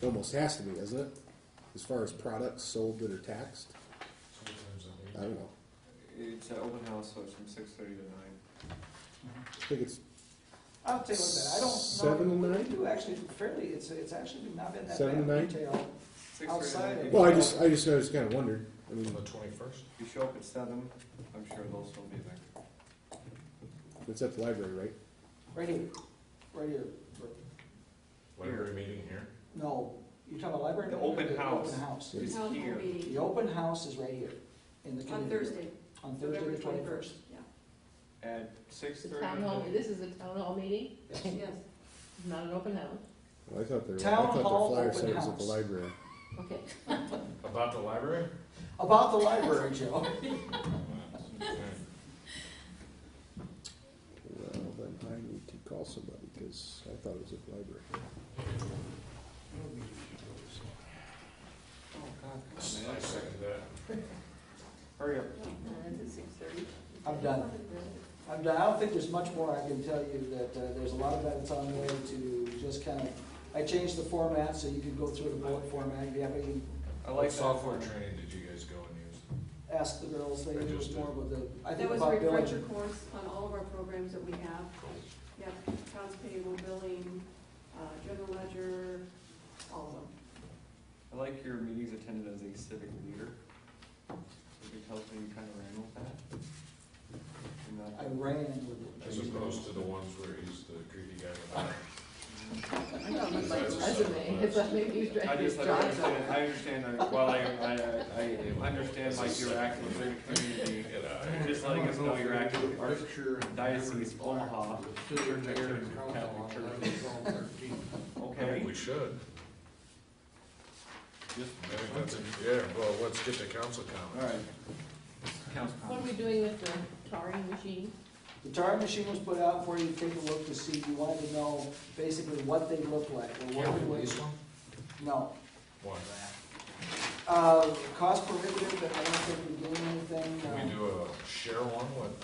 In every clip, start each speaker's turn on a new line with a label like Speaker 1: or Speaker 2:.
Speaker 1: It almost has to be, doesn't it? As far as products sold that are taxed? I don't know.
Speaker 2: It's an open house, so it's from six thirty to nine.
Speaker 1: I think it's
Speaker 3: I'll tell you what, then, I don't know.
Speaker 1: Seven and
Speaker 3: We
Speaker 1: nine?
Speaker 3: do actually fairly, it's, it's actually not been that
Speaker 1: Seven
Speaker 3: bad
Speaker 1: and nine?
Speaker 3: retail.
Speaker 2: Six thirty to
Speaker 3: Outside
Speaker 2: nine.
Speaker 3: of-
Speaker 1: Well, I just, I just, I just kinda wondered. I mean,
Speaker 4: twenty-first?
Speaker 2: If you show up at seven, I'm sure they'll still be there.
Speaker 1: it's at the library, right?
Speaker 3: Right here, right here.
Speaker 4: Library meeting here?
Speaker 3: No, you're talking about library?
Speaker 2: The
Speaker 3: meeting or
Speaker 2: open house.
Speaker 3: Open house.
Speaker 2: It's
Speaker 5: Town hall
Speaker 2: here.
Speaker 5: meeting
Speaker 3: The open house is right here in the
Speaker 5: on
Speaker 3: community.
Speaker 5: Thursday,
Speaker 3: On Thursday,
Speaker 5: November
Speaker 3: the twenty-first.
Speaker 5: twenty-first, yeah.
Speaker 2: At six
Speaker 6: The
Speaker 2: thirty.
Speaker 6: town hall, this is a town hall meeting,
Speaker 5: Yes.
Speaker 6: not an open house,
Speaker 1: Well, I thought there, I
Speaker 3: Town
Speaker 1: thought their
Speaker 3: hall
Speaker 1: flyer
Speaker 3: open
Speaker 1: said it was at the
Speaker 3: house.
Speaker 1: library.
Speaker 6: okay.
Speaker 4: About the library?
Speaker 3: About the library, Joe.
Speaker 1: Well, then I need to call somebody, cause I thought it was at the library.
Speaker 2: Oh, God,
Speaker 4: I
Speaker 2: come on, man.
Speaker 4: second that.
Speaker 2: Hurry up.
Speaker 5: Uh,
Speaker 6: And it's at six thirty.
Speaker 3: I'm done. I'm done. I don't think there's much more I can tell you, that uh, there's a lot of that that's on there to just kind of, I changed the format so you could go through the bullet format. If you have any,
Speaker 2: I like
Speaker 4: What
Speaker 2: that.
Speaker 4: software training did you guys go and
Speaker 3: ask the girls, they
Speaker 4: I
Speaker 3: knew
Speaker 4: just
Speaker 3: more
Speaker 4: did.
Speaker 3: about the, I
Speaker 5: That
Speaker 3: think
Speaker 5: was a
Speaker 3: about
Speaker 5: refresher
Speaker 3: billing.
Speaker 5: course on all of our programs that we have. Yep, accounts payable, billing, uh, general ledger, all of them.
Speaker 2: I like your meetings attended as a civic leader. If it tells me you kind of ran with that. And
Speaker 3: I
Speaker 2: that-
Speaker 3: ran with it.
Speaker 4: use? As opposed to the ones where he's the creepy guy with the.
Speaker 6: I got my resume, it's like maybe he's
Speaker 2: I
Speaker 6: dragging his
Speaker 2: just, I
Speaker 6: jocks up.
Speaker 2: understand, I understand, that- well, I, I, I, I understand like you're acting for the community.
Speaker 4: Get out of
Speaker 2: You're
Speaker 4: here.
Speaker 2: Just letting us know you're acting for our
Speaker 7: Picture and
Speaker 2: diocese of Omaha.
Speaker 7: Sitting there in
Speaker 2: Catholic
Speaker 7: council on
Speaker 2: Church.
Speaker 4: I
Speaker 7: 11/12/13.
Speaker 4: think
Speaker 2: Okay,
Speaker 4: we should.
Speaker 2: just,
Speaker 4: I think that's, a- yeah, well, let's get to council
Speaker 2: all
Speaker 4: comments.
Speaker 2: right. Council
Speaker 6: What are we
Speaker 2: comments.
Speaker 6: doing with the tarring machine?
Speaker 3: The tarring machine was put out for you to take a look to see, you wanted to know basically what they look like, or
Speaker 4: Yeah,
Speaker 3: what it
Speaker 4: this
Speaker 3: was.
Speaker 4: one?
Speaker 3: No.
Speaker 4: One.
Speaker 3: Uh, cost prohibitive, but I don't think we gain anything.
Speaker 4: Can we
Speaker 3: uh,
Speaker 4: do a share one with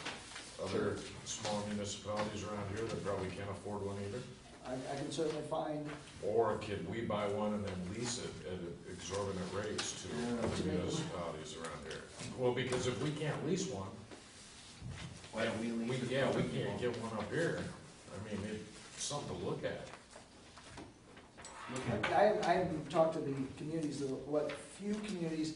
Speaker 4: other small municipalities around here that probably can't afford one either?
Speaker 3: I, I can certainly find,
Speaker 4: Or could we buy one and then lease it at exorbitant rates to
Speaker 5: Oh,
Speaker 4: other municipalities around here? Well, because if we can't lease one,
Speaker 2: Why don't we
Speaker 4: we,
Speaker 2: leave? this
Speaker 4: yeah, we
Speaker 2: one
Speaker 4: can't
Speaker 2: alone?
Speaker 4: get one up here. I mean, it's something to look at.
Speaker 2: Look at it.
Speaker 3: I, I haven't talked to the communities, the- what few communities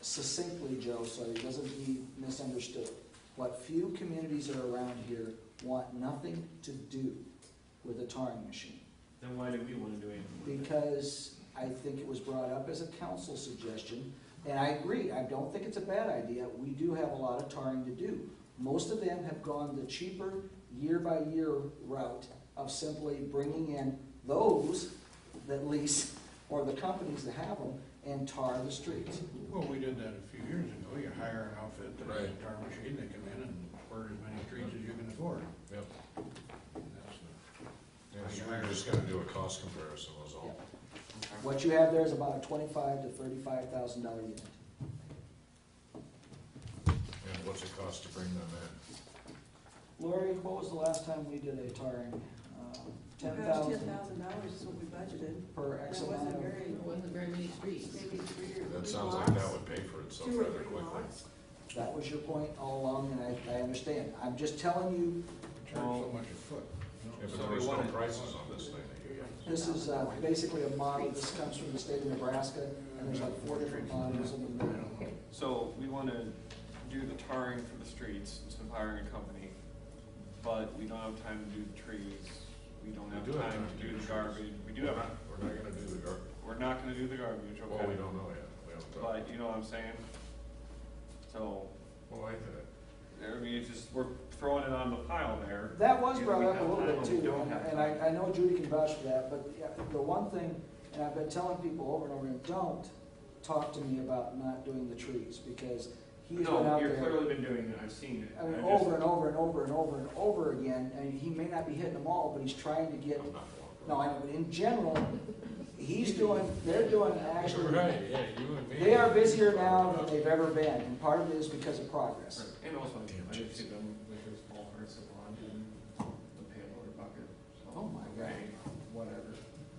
Speaker 3: succinctly, Joe, so it doesn't be misunderstood. What few communities that are around here want nothing to do with the tarring machine.
Speaker 2: Then why do we wanna do anything with it?
Speaker 3: because I think it was brought up as a council suggestion, and I agree, I don't think it's a bad idea, we do have a lot of tarring to do. Most of them have gone the cheaper, year-by-year route of simply bringing in those that lease, or the companies that have them, and tar the streets.
Speaker 7: Well, we did that a few years ago. You hire an outfit that has a
Speaker 4: Right.
Speaker 7: tar machine, they come in and burn as many trees as you can afford.
Speaker 4: Yep.
Speaker 7: And that's the-
Speaker 4: Yeah, so we're just gonna do a cost comparison was all.
Speaker 3: What you have there is about a twenty-five to thirty-five thousand dollar unit.
Speaker 4: And what's it cost to bring them in?
Speaker 3: Lori, what was the last time we did a tarring? Uh, Ten
Speaker 5: Oh, Ten
Speaker 3: thousand
Speaker 5: thousand dollars is what we budgeted.
Speaker 3: per
Speaker 5: That
Speaker 3: X amount
Speaker 5: wasn't
Speaker 3: of.
Speaker 5: very,
Speaker 6: It wasn't very many streets.
Speaker 5: maybe three or.
Speaker 4: That
Speaker 5: three
Speaker 4: sounds like that
Speaker 5: lots,
Speaker 4: would pay for itself
Speaker 5: Two or
Speaker 4: rather
Speaker 5: three
Speaker 4: quickly.
Speaker 5: lots.
Speaker 3: That was your point all along, and I, I understand. I'm just telling you,
Speaker 7: Charge so much a foot. you know.
Speaker 4: Yeah, but
Speaker 2: So
Speaker 4: there
Speaker 2: we
Speaker 4: was no
Speaker 2: wanted-
Speaker 4: prices on this thing.
Speaker 3: this is uh, basically a model, this comes from the state of Nebraska, and there's like four different models in there.
Speaker 2: So we wanna do the tarring for the streets instead of hiring a company, but we don't have time to do the trees, we don't
Speaker 4: We do
Speaker 2: have
Speaker 4: have
Speaker 2: time to do the garbage, we do have,
Speaker 4: We're not gonna do the gar,
Speaker 2: we're not gonna do the garbage, okay?
Speaker 4: well, we don't know yet. We haven't talked.
Speaker 2: But you know what I'm saying? So,
Speaker 4: Well, I think.
Speaker 2: I mean, it's just, we're throwing it on the pile there.
Speaker 3: That was
Speaker 2: Either
Speaker 3: brought
Speaker 2: we
Speaker 3: up a
Speaker 2: have
Speaker 3: little
Speaker 2: time
Speaker 3: bit
Speaker 2: or we
Speaker 3: too,
Speaker 2: don't
Speaker 3: and-
Speaker 2: have
Speaker 3: and
Speaker 2: time.
Speaker 3: I, I know Judy can vouch for that, but yeah, the one thing, and I've been telling people over and over, again, don't talk to me about not doing the trees, because he's been
Speaker 2: No,
Speaker 3: out
Speaker 2: you've
Speaker 3: there.
Speaker 2: clearly been doing it, I've seen it.
Speaker 3: I mean,
Speaker 2: I just-
Speaker 3: over and over and over and over and over again, and he may not be hitting them all, but he's trying to get,
Speaker 4: I'm not going.
Speaker 3: no, I know, but in general, he's doing, they're doing actually.
Speaker 4: Right, yeah, you and me.
Speaker 3: They are busier now than they've ever been, and part of it is because of
Speaker 2: Right,
Speaker 3: progress.
Speaker 2: And also,
Speaker 4: Damn,
Speaker 2: I just
Speaker 4: Jason.
Speaker 2: think I'm
Speaker 3: Oh